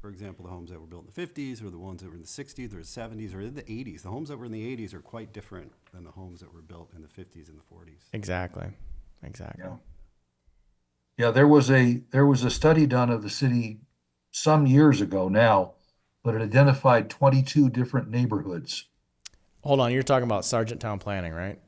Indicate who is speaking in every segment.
Speaker 1: For example, the homes that were built in the fifties, or the ones that were in the sixties, or the seventies, or in the eighties. The homes that were in the eighties are quite different than the homes that were built in the fifties and the forties.
Speaker 2: Exactly. Exactly.
Speaker 3: Yeah. Yeah, there was a, there was a study done of the city some years ago now, but it identified twenty-two different neighborhoods.
Speaker 2: Hold on, you're talking about Sargent Town Planning, right?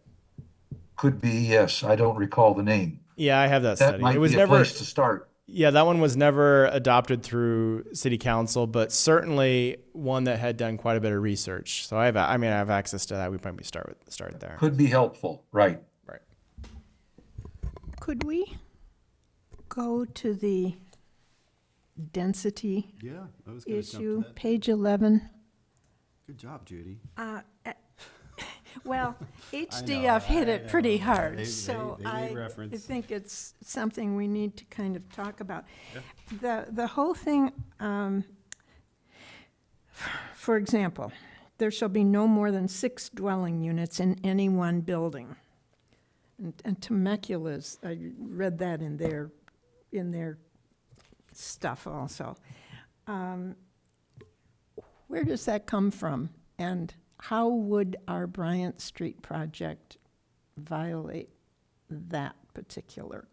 Speaker 3: Could be, yes, I don't recall the name.
Speaker 2: Yeah, I have that,
Speaker 3: That
Speaker 2: study.
Speaker 3: might
Speaker 2: It was
Speaker 3: be a
Speaker 2: never
Speaker 3: place to start.
Speaker 2: Yeah, that one was never adopted through city council, but certainly one that had done quite a bit of research. So I have I mean I have access to that. We probably start with start there.
Speaker 3: Could be helpful, right?
Speaker 2: Right.
Speaker 4: Could we go to the density
Speaker 1: Yeah, I was gonna jump to
Speaker 4: issue,
Speaker 1: that.
Speaker 4: page 11?
Speaker 1: Good job, Judy.
Speaker 4: Well, HDF hit it pretty
Speaker 1: They-
Speaker 4: hard,
Speaker 1: they-
Speaker 4: so
Speaker 1: they made
Speaker 4: I
Speaker 1: reference.
Speaker 4: think it's something we need to kind of talk about. The, the whole thing, um, for example, there shall be no more than six dwelling units in any one building. And and Temecula's, I read that in their, in their stuff also. Um, Where does that come from? And how would our Bryant Street project violate that particular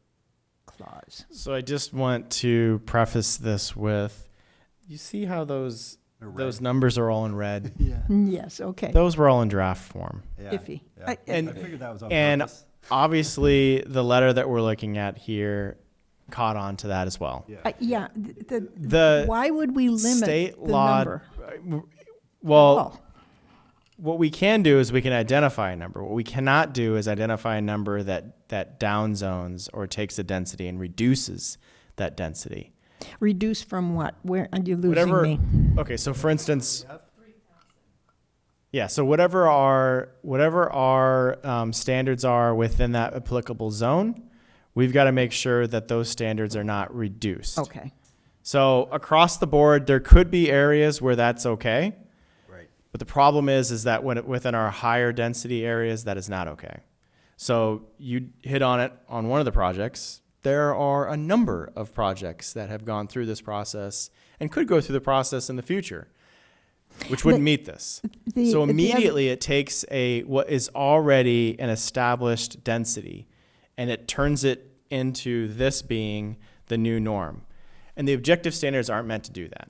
Speaker 4: clause?
Speaker 2: So I just want to preface this with you see how those
Speaker 1: They're red.
Speaker 2: those numbers are all in red.
Speaker 1: Yeah.
Speaker 4: Yes, okay,
Speaker 2: Those were all in draft form.
Speaker 4: iffy.
Speaker 1: Yeah.
Speaker 4: I-
Speaker 1: I
Speaker 2: And
Speaker 1: figured that was on
Speaker 2: and
Speaker 1: purpose.
Speaker 2: obviously the letter that we're looking at here caught on to that as well.
Speaker 4: I- Yeah, th- the,
Speaker 2: The
Speaker 4: why would we limit
Speaker 2: state
Speaker 4: the
Speaker 2: law
Speaker 4: number?
Speaker 2: well
Speaker 4: Oh,
Speaker 2: what we can do is we can identify a number. What we cannot do is identify a number that that downzones or takes the density and reduces that density.
Speaker 4: Reduce from what? Where, are you losing
Speaker 2: Whatever.
Speaker 4: me?
Speaker 2: Okay, so for instance, yeah. So whatever our whatever our um, standards are within that applicable zone, we've got to make sure that those standards are not reduced.
Speaker 4: Okay,
Speaker 2: So across the board, there could be areas where that's okay,
Speaker 1: Right.
Speaker 2: But the problem is, is that when it, within our higher density areas, that is not okay. So you hit on it on one of the projects. There are a number of projects that have gone through this process and could go through the process in the future, which would
Speaker 4: The-
Speaker 2: meet this.
Speaker 4: the- the
Speaker 2: so
Speaker 4: other-
Speaker 2: immediately, it takes a what is already an established density, and it turns it into this being the new norm. And the objective standards aren't meant to do that.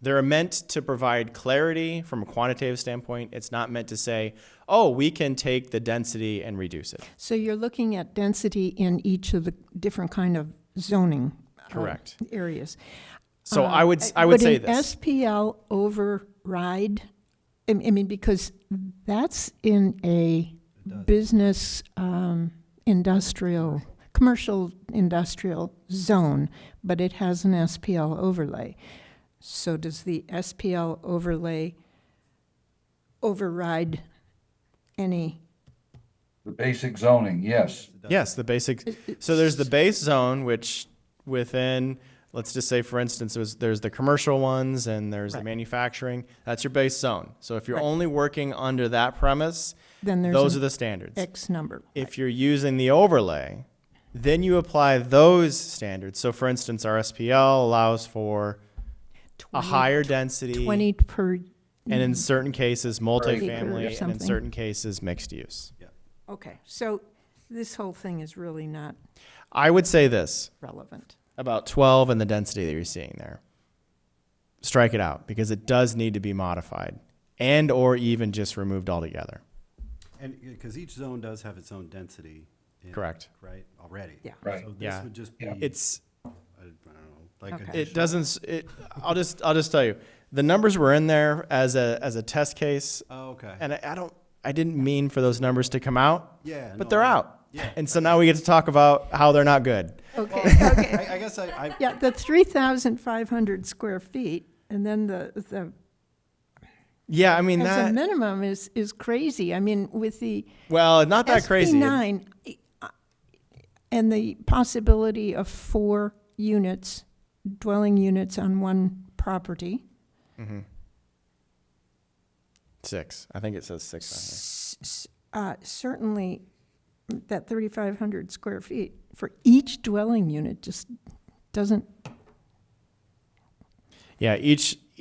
Speaker 2: They're meant to provide clarity from a quantitative standpoint. It's not meant to say, oh, we can take the density and reduce it.
Speaker 4: so you're looking at density in each of the different kind of zoning. uh,
Speaker 2: Correct.
Speaker 4: Areas.
Speaker 2: So I would s- I would
Speaker 4: Would
Speaker 2: say
Speaker 4: Uh, an
Speaker 2: this.
Speaker 4: SPL override, I I mean, because that's in a business, um, industrial, commercial industrial zone, but it has an SPL overlay. So does the SPL overlay override any?
Speaker 3: The basic zoning, yes.
Speaker 2: Yes, the basic. So there's the base zone, which within, let's just say, for instance, there's, there's the commercial ones and there's the
Speaker 4: Right.
Speaker 2: manufacturing. That's your base zone. So if you're
Speaker 4: Right.
Speaker 2: only working under that premise,
Speaker 4: Then there's
Speaker 2: those
Speaker 4: an
Speaker 2: are the standards.
Speaker 4: X number.
Speaker 2: If you're using the overlay, then you apply those standards. So for instance, our SPL allows for a higher density,
Speaker 4: Twenty per,
Speaker 2: and in certain cases,
Speaker 4: Acre or
Speaker 2: multifamily, and in
Speaker 4: something.
Speaker 2: certain cases, mixed use.
Speaker 4: okay, so this whole thing is really not
Speaker 2: I would say this.
Speaker 4: relevant.
Speaker 2: about 12 and the density that you're seeing there strike it out because it does need to be modified and or even just removed altogether
Speaker 1: And, because each zone does have its own density. in it,
Speaker 2: Correct.
Speaker 1: Right, already.
Speaker 4: Yeah.
Speaker 3: Right.
Speaker 1: So this
Speaker 2: Yeah.
Speaker 1: would just be, I don't
Speaker 2: it's
Speaker 1: know, like.
Speaker 4: Okay.
Speaker 2: it
Speaker 1: additional-
Speaker 2: doesn't s- it i'll just i'll just tell you the numbers were in there as a as a test case
Speaker 1: Oh, okay.
Speaker 2: and i, I don't i didn't mean for those numbers to come out
Speaker 1: Yeah,
Speaker 2: but
Speaker 1: no,
Speaker 2: they're
Speaker 1: I-
Speaker 2: out
Speaker 1: yeah.
Speaker 2: and so now we get to talk about how they're not good
Speaker 4: Okay, okay.
Speaker 1: I, I guess I, I,
Speaker 4: Yeah, the three thousand five hundred square feet, and then the, the,
Speaker 2: yeah i mean
Speaker 4: as a
Speaker 2: that
Speaker 4: minimum is, is crazy. I mean, with the
Speaker 2: well not that
Speaker 4: SB
Speaker 2: crazy
Speaker 4: nine, and the possibility of four units, dwelling units on one property.
Speaker 2: six i think it says six on here.
Speaker 4: Uh, certainly, that thirty-five hundred square feet for each dwelling unit just doesn't,
Speaker 2: Yeah, each